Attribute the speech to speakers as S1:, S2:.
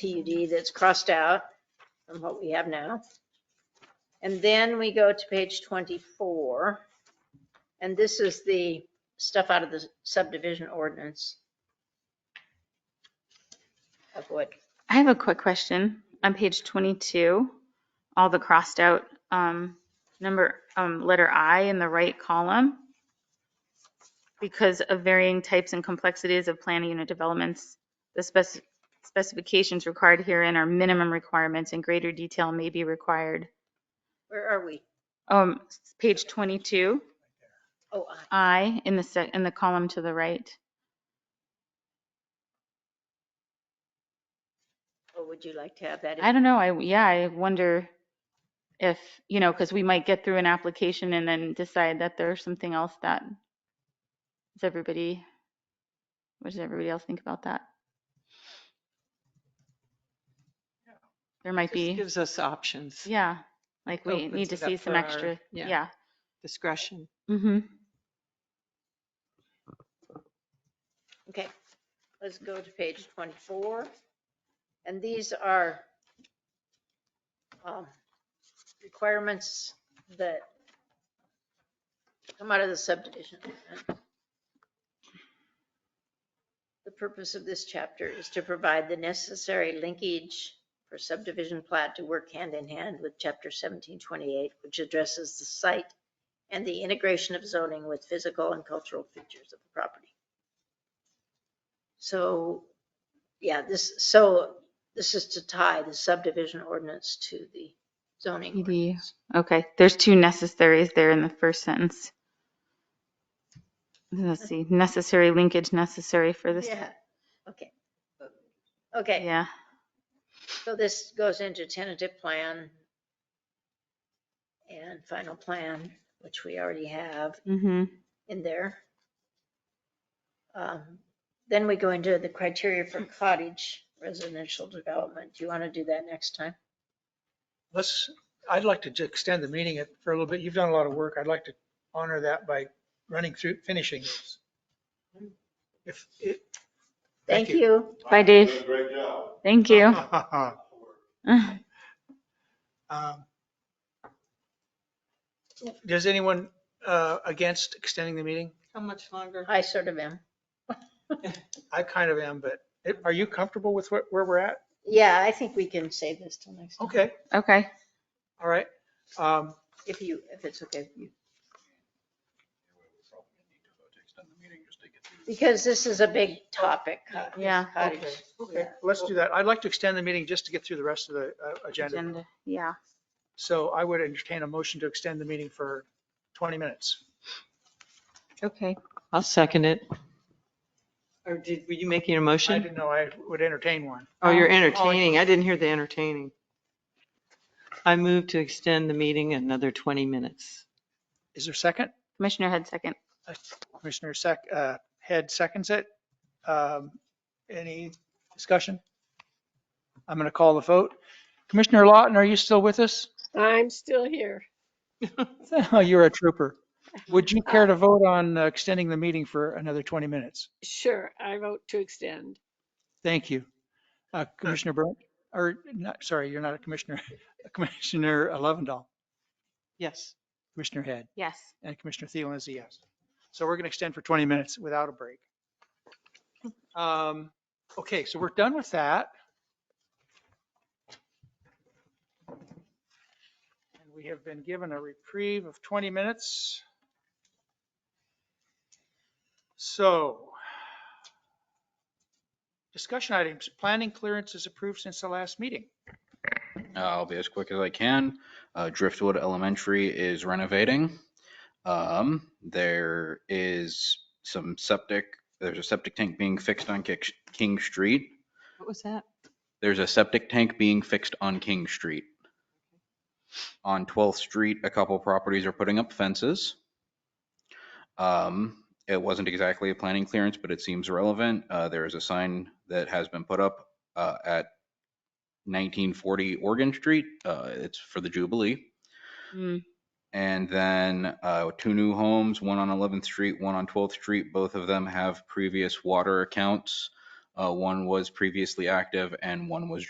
S1: PUD that's crossed out from what we have now. And then we go to page 24. And this is the stuff out of the subdivision ordinance. Of what,
S2: I have a quick question. On page 22, all the crossed out, um, number, um, letter I in the right column. Because of varying types and complexities of planning unit developments, the spec- specifications required herein are minimum requirements and greater detail may be required.
S1: where are we?
S2: Um, s- page 22,
S1: Oh, I-
S2: I in the sec, in the column to the right.
S1: oh, would you like to have that? in?
S2: I don't know. I, yeah, I wonder if, you know, because we might get through an application and then decide that there's something else that, does everybody, what does everybody else think about that? There might
S3: Just
S2: be,
S3: Gives us options,
S2: yeah, like we
S3: opens
S2: need to
S3: it up
S2: see some
S3: for our-
S2: extra,
S3: yeah.
S2: yeah.
S3: discretion.
S2: Mm-hmm.
S1: Okay, let's go to page 24. And these are um, requirements that come out of the subdivision. The purpose of this chapter is to provide the necessary linkage for subdivision plat to work hand in hand with chapter 1728, which addresses the site and the integration of zoning with physical and cultural features of the property. So, yeah, this, so this is to tie the subdivision ordinance to the zoning
S2: PD.
S1: ordinance.
S2: Okay, there's two necessaries there in the first sentence. Let's see, necessary linkage necessary for this,
S1: Yeah, okay. Okay,
S2: yeah.
S1: so this goes into tentative plan and final plan, which we already have
S2: Mm-hmm.
S1: in there. Um, Then we go into the criteria for
S4: Hmm.
S1: cottage residential development. Do you want to do that next time?
S4: Let's, I'd like to ju- extend the meeting it for a little bit. You've done a lot of work. I'd like to honor that by running through, finishing this. If, it.
S1: Thank
S4: Thank you.
S1: you.
S2: Bye, Dave. Thank you. Uh,
S4: Um, Does anyone uh, against extending the meeting?
S3: How much longer?
S1: I sort of am.
S4: I kind of am, but it- are you comfortable with where, where we're at?
S1: Yeah, I think we can save this till next time,
S4: Okay,
S2: Okay.
S4: all right. Um,
S1: if you, if it's okay with you. Because this is a big topic. cottage-
S2: Yeah.
S1: cottage.
S4: Okay, okay, let's do that. I'd like to extend the meeting just to get through the rest of the uh, agenda.
S2: Agenda. Yeah.
S4: So I would entertain a motion to extend the meeting for 20 minutes.
S2: Okay.
S3: I'll second it. Or did, were you making a
S4: I
S3: motion?
S4: didn't know I would entertain one.
S3: Oh, you're entertaining. I didn't hear the entertaining. I move to extend the meeting another 20 minutes.
S4: Is there a second?
S2: Commissioner Head second.
S4: Uh, Commissioner Sec, uh, Head seconds it. Um, Any discussion? I'm going to call the vote. Commissioner Lawton, are you still with us?
S5: I'm still here.
S4: Oh, You're a trooper. Would you care to vote on uh, extending the meeting for another 20 minutes?
S5: Sure, I vote to extend.
S4: Thank you. Uh, Commissioner Brent, or not, sorry, you're not a commissioner. Commissioner Lovendall,
S3: Yes.
S4: Commissioner Head,
S2: Yes.
S4: and Commissioner Thielen is a yes. So we're going to extend for 20 minutes without a break. Um, Okay, so we're done with that. And we have been given a reprieve of 20 minutes. So discussion items, planning clearance is approved since the last meeting.
S6: Uh, I'll be as quick as I can. Uh, Driftwood Elementary is renovating. Um, There is some septic, there's a septic tank being fixed on Kick- King Street.
S3: What was that?
S6: There's a septic tank being fixed on King Street. On 12th Street, a couple properties are putting up fences. Um, It wasn't exactly a planning clearance, but it seems relevant. Uh, There is a sign that has been put up uh, at 1940 Oregon Street. Uh, It's for the Jubilee.
S2: Mm.
S6: And then uh, two new homes, one on 11th Street, one on 12th Street. Both of them have previous water accounts. Uh, One was previously active and one was